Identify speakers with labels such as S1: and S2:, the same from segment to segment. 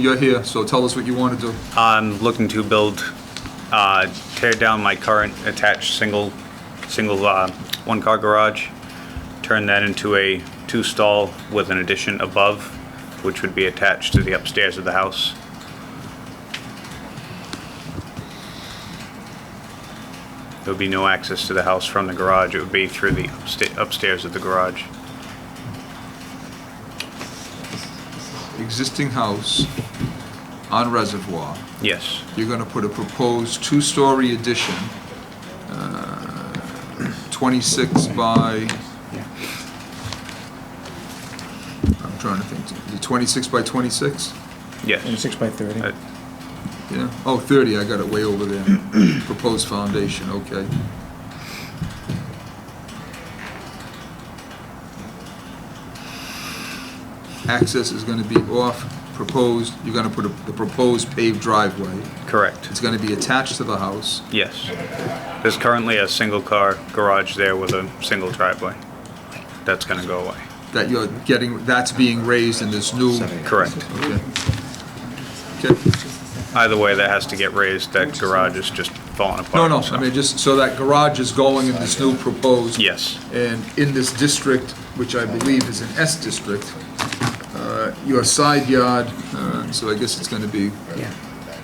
S1: You're here, so tell us what you want to do.
S2: I'm looking to build, uh, tear down my current attached single, single uh, one-car garage, turn that into a two-stall with an addition above, which would be attached to the upstairs of the house. There would be no access to the house from the garage. It would be through the upsta- upstairs of the garage.
S1: Existing house on Reservoir.
S2: Yes,
S1: You're going to put a proposed two-story addition, uh, 26 by, I'm trying to think, The 26 by 26?
S2: yes.
S3: Six by thirty.
S2: Uh,
S1: Yeah, oh, 30, I got it way over there. Proposed foundation, okay. Access is going to be off proposed, you're going to put a- the proposed paved driveway.
S2: Correct.
S1: It's going to be attached to the house.
S2: Yes. There's currently a single-car garage there with a single driveway. That's going to go away.
S1: that you're getting, that's being raised in this new.
S2: Correct.
S1: Okay. Okay.
S2: Either way, that has to get raised. That garage is just falling
S1: No,
S2: apart.
S1: no,
S2: so-
S1: I mean, just, so that garage is going in this new proposed.
S2: Yes.
S1: And in this district, which I believe is an S district, uh, your side yard, uh, so I guess it's gonna be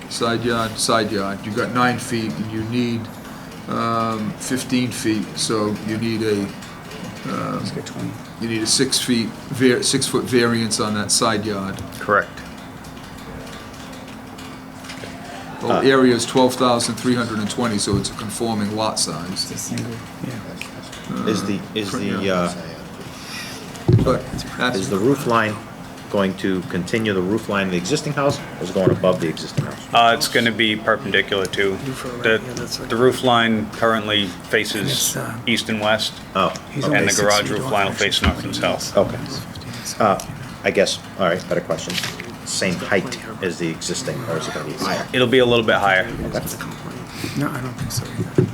S1: side yard, side yard, you got nine feet, and you need um, 15 feet, so you need a,
S3: Let's get twenty.
S1: you need a six feet, var- six-foot variance on that side yard.
S2: Correct.
S1: The
S4: Uh.
S1: whole area is 12,320, so it's a conforming lot size.
S3: Single, yeah.
S4: Is the, is the, uh,
S1: But
S4: is
S1: that's,
S4: the roof line going to continue the roof line of the existing house, or is it going above the existing house?
S2: Uh, It's going to be perpendicular to, the the roof line currently faces east and west,
S4: Oh,
S2: and the garage roof line will face north and south.
S4: okay. Uh, I guess, all right, better question. Same height as the existing, or is it going to be higher?
S2: It'll be a little bit higher.
S3: No, I don't think so either.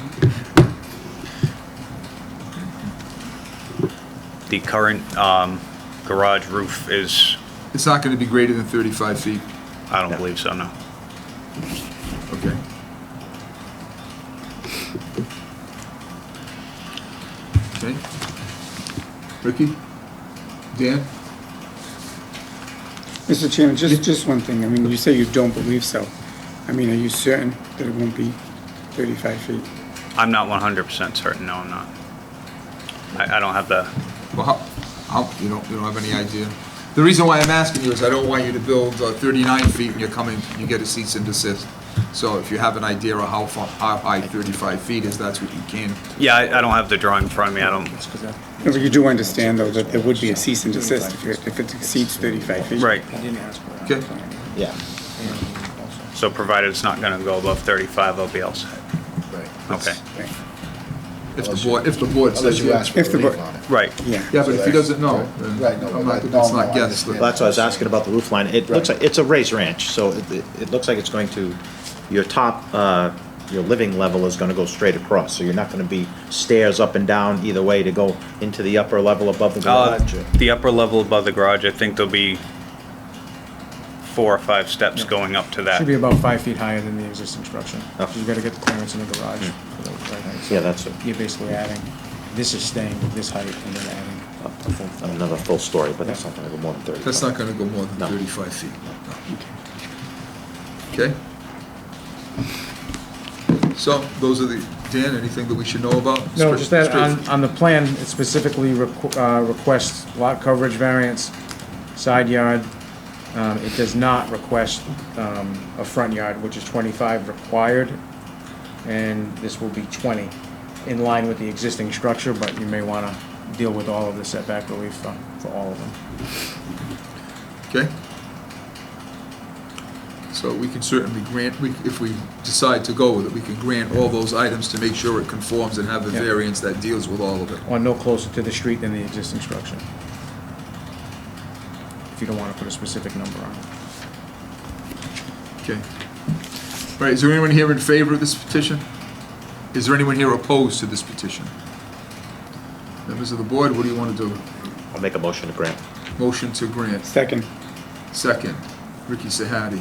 S2: The current um, garage roof is,
S1: it's not going to be greater than 35 feet.
S2: I don't believe so, no.
S1: Okay. Okay. Ricky? Dan?
S3: Mr. Chairman, just, just one thing. I mean, you say you don't believe so. I mean, are you certain that it won't be thirty-five feet?
S2: I'm not 100% certain, no, I'm not. I I don't have the
S1: Well, how, how, you don't, you don't have any idea? The reason why I'm asking you is I don't want you to build uh, 39 feet and you're coming, you get a cease and desist. So if you have an idea of how far, how high 35 feet is, that's what you can
S2: Yeah, I, I don't have the drawing in front of me. I don't.
S3: No, but You do understand, though, that there would be a cease and desist if it, if it exceeds thirty-five feet.
S2: Right.
S1: Okay.
S4: Yeah.
S2: So provided it's not going to go above 35, I'll be all set. Okay.
S3: Right.
S1: If the board, if the board says you
S5: ask
S1: Yeah,
S5: for
S3: If the
S5: relief
S3: bo-
S5: on it.
S2: Right.
S5: So
S1: but if he
S5: that's-
S1: doesn't know, then
S5: Right, no,
S1: I'm
S5: but
S1: not,
S5: I-
S1: it's
S5: no, no,
S1: not
S5: I
S1: guest.
S5: understand.
S4: That's what I was asking about the roof line. It looks like, it's a raised ranch, so it, it- it looks like it's going to, your top, uh, your living level is gonna go straight across, so you're not gonna be stairs up and down either way to go into the upper level above the
S2: Uh,
S4: garage. or-
S2: the upper level above the garage, I think there'll be four or five steps going up to
S6: Should be
S2: that.
S6: about five feet higher than the existing structure.
S4: Oh.
S6: You gotta get the clearance in the garage for the
S2: Hmm.
S6: right height. So
S4: Yeah, that's it.
S6: You're basically adding, this is staying with this height and then adding.
S4: a full- Another full story, but that's not gonna go more than thirty.
S1: That's not gonna go more than
S4: No.
S1: thirty-five feet. Okay? So, those are the, Dan, anything that we should know about?
S6: No,
S1: Straight-
S6: just that, um, uh,
S1: straight-
S6: on, on the plan, it specifically requ- uh, requests lot coverage variance, side yard. Um, It does not request um, a front yard, which is 25 required, and this will be 20, in line with the existing structure, but you may want to deal with all of the setback relief for for all of them.
S1: Okay? So we can certainly grant, we, if we decide to go with it, we can grant all those items to make sure it conforms and have a
S6: Yeah.
S1: variance that deals with all of it.
S6: or no closer to the street than the existing structure. If you don't want to put a specific number on it.
S1: Okay? All right, is there anyone here in favor of this petition? Is there anyone here opposed to this petition? Members of the board, what do you wanna do?
S4: I'll make a motion to grant.
S1: Motion to grant.
S3: Second,
S1: Second. Ricky Sahadi.